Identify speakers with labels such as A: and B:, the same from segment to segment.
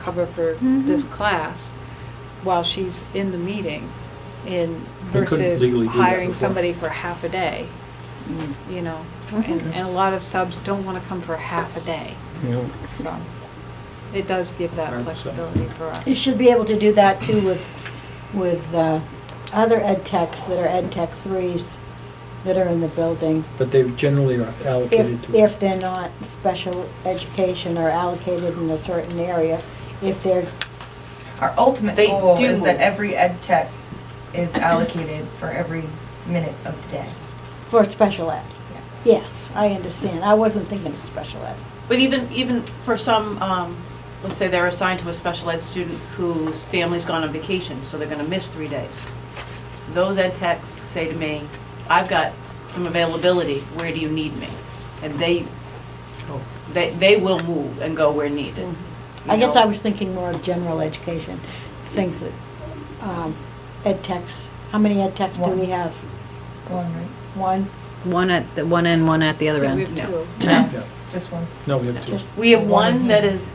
A: cover for this class while she's in the meeting and
B: They couldn't
A: versus
B: legally do that
A: hiring
B: before.
A: somebody for half a day, you know? And, and a lot of subs don't wanna come for half a day,
B: Yeah.
A: so it does give that
B: Right, so-
A: flexibility for us.
C: You should be able to do that too with, with uh, other ed techs that are ed tech threes that are in the building.
B: But they generally are allocated
C: If,
B: to.
C: if they're not special education or allocated in a certain area, if they're,
D: Our ultimate
E: They
D: goal
E: do
D: is that
E: move.
D: every ed tech is allocated for every minute of the day.
C: for special ed.
D: Yes.
C: Yes, I understand. I wasn't thinking of special ed.
E: But even, even for some, um, let's say they're assigned to a special ed student whose family's gone on vacation, so they're gonna miss three days. Those ed techs say to me, I've got some availability, where do you need me? And they,
B: Oh.
E: they, they will move and go where needed.
C: Mm-hmm. I
E: Mm-hmm. you
C: guess
E: know?
C: I was thinking more of general education, things that, um, ed techs, how many ed techs do we
D: One.
C: have?
D: One, right?
C: One?
F: One at, the one end, one at the other
A: We
F: end.
A: have
E: No.
A: two.
B: Yeah.
D: Just one.
B: No, we have two.
C: Just-
E: We have one that is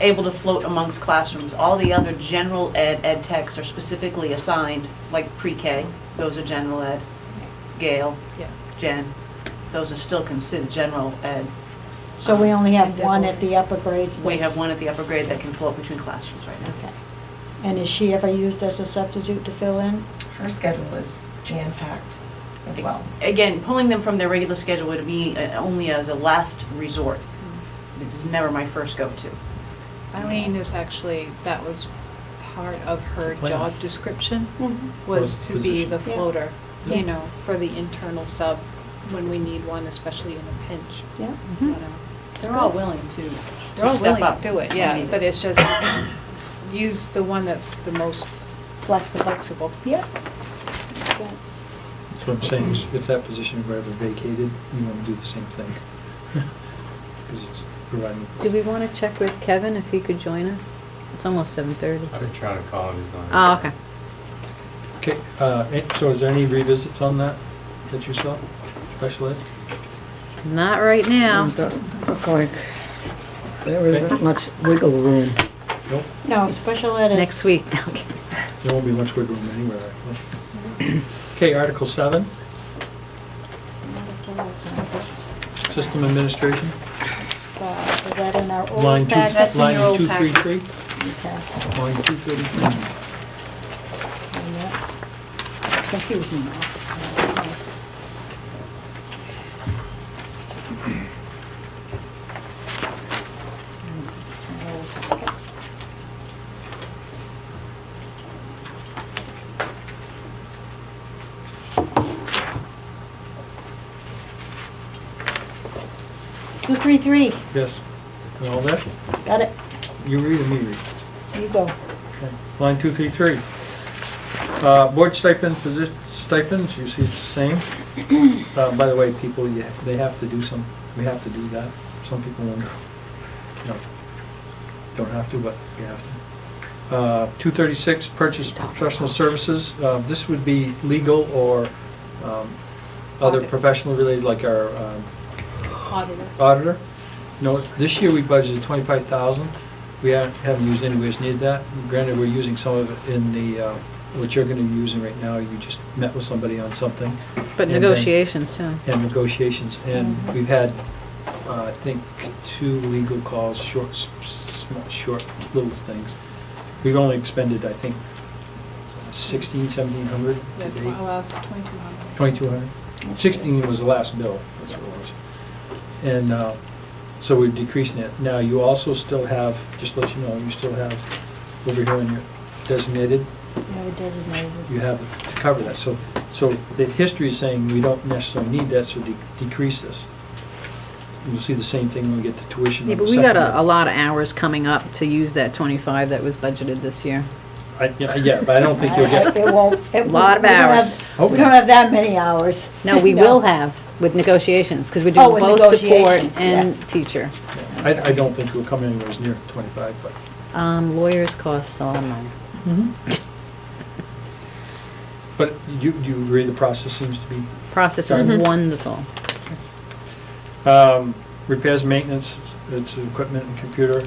E: able to float amongst classrooms. All the other general ed, ed techs are specifically assigned, like pre-K, those are general ed. Gail,
A: Yeah.
E: Jen, those are still considered general ed.
C: So we only have
D: And
C: one
D: double.
C: at the upper grades
E: We have
C: that's-
E: one at the upper grade that can float between classrooms right now.
C: Okay. And is she ever used as a substitute to fill in?
D: Her schedule is jam-packed as well.
E: Again, pulling them from their regular schedule would be uh, only as a last resort.
A: Mm-hmm.
E: It's never my first go-to.
A: Eileen is actually, that was part of her
B: Plan.
A: job description,
B: Was
A: was to be
B: position.
A: the
C: Mm-hmm. Yeah.
A: floater,
B: Yeah.
A: you know, for the internal sub when we need one, especially in a pinch.
C: Yeah.
F: Mm-hmm.
A: you know.
E: They're all willing to
A: They're all
E: step
A: willing to
E: up.
A: do it,
E: when
A: yeah,
E: needed.
A: but it's just, use the one that's the most
C: Flexible.
A: flexible.
C: Yeah. Makes sense.
B: That's what I'm saying, is if that position were ever vacated, you want to do the same thing. Because it's providing.
F: Do we want to check with Kevin if he could join us? It's almost 7:30.
G: I've been trying to call him, he's not.
F: Oh, okay.
B: Okay, uh, eh, so is there any revisits on that that you saw, special ed?
F: Not right now.
H: Doesn't Look like there isn't
B: Okay.
H: much wiggle room.
B: Nope,
C: No, special ed is.
F: Next week. Okay.
B: there won't be much wiggle room anywhere. actually. Okay, Article seven, system administration,
C: Is that in our
B: line
C: old
B: two,
C: packet?
A: That's in your
B: line
A: old
B: two three
A: packet.
B: three,
C: Okay.
B: line two thirty-three.
C: And that- Confusing now. Two, three, three,
B: Yes, and all that,
C: got it,
B: you read or me read?
C: you go.
B: Okay, Line 233. Uh, Board stipend, posi- stipends, you see it's the same. Uh, By the way, people, you- they have to do some, we have to do that. Some people wonder, no, don't have to, but we have to. Uh, 236, purchase professional services. Uh, This would be legal or um, other
A: Audit.
B: professional related, like our um,
A: Auditor.
B: auditor. No, this year we budgeted twenty-five thousand. We ha- haven't used any, we just need that. Granted, we're using some of it in the, uh, what you're gonna be using right now. You just met with somebody on something
F: But
B: And then-
F: negotiations, too.
B: and negotiations. And we've had, uh, I think, two legal calls, short, s- s- small, short little things. We've only expended, I think, sixteen, seventeen hundred
A: Yeah,
B: to
A: tw-
B: date.
A: well, it's 2,200.
B: 2,200. 16 was the last bill, that's what it was. And uh, so we're decreasing it. Now, you also still have, just to let you know, you still have over here in your designated,
C: No, it doesn't matter.
B: you have it to cover that. So, so the history is saying we don't necessarily need that, so de- decrease this. You'll see the same thing when we get to tuition.
F: Yeah, but we got a, a lot of hours coming up to use that 25 that was budgeted this year.
B: I- Yeah, yeah, but I don't think you'll get,
C: It won't. it-
F: Lot of
C: we don't have-
F: hours.
C: We don't have that many hours.
F: No, we will have with negotiations, because we're
C: Oh,
F: doing
C: with
F: both support
C: negotiations,
F: and teacher.
B: I, I don't think we'll come anywhere near 25, but.
F: Um, lawyers cost a lot of money.
B: But you, do you agree the process seems to be
F: Process is
B: Mhm.
F: wonderful.
B: Um, Repairs, maintenance, it's equipment and computer.